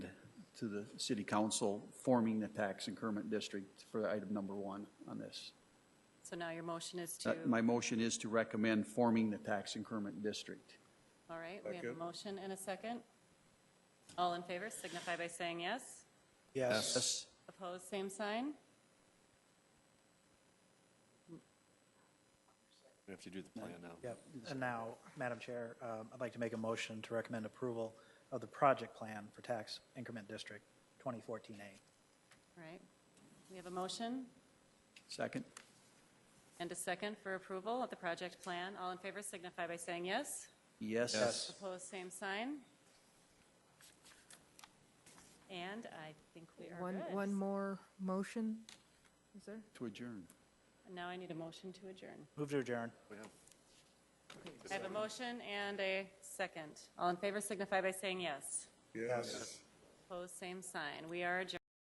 to the city council forming the tax increment district for item number one on this. So now your motion is Uh, to, My motion is to recommend forming the tax increment district. all right, we have a motion and a second. All in favor signify by saying yes. Yes. Yes. Opposed, same sign. We have to do the plan now. Yep. And now, Madam Chair, um, I'd like to make a motion to recommend approval of the project plan for Tax Increment District 2014A. All right, we have a motion Second? and a second for approval of the project plan. All in favor signify by saying yes. Yes. Yes. Opposed, same sign. And I think we are One, good. one more motion, is there? To adjourn. Now I need a motion to adjourn. Move to adjourn. I have a motion and a second. All in favor signify by saying yes. Yes. Opposed, same sign. We are adjourned.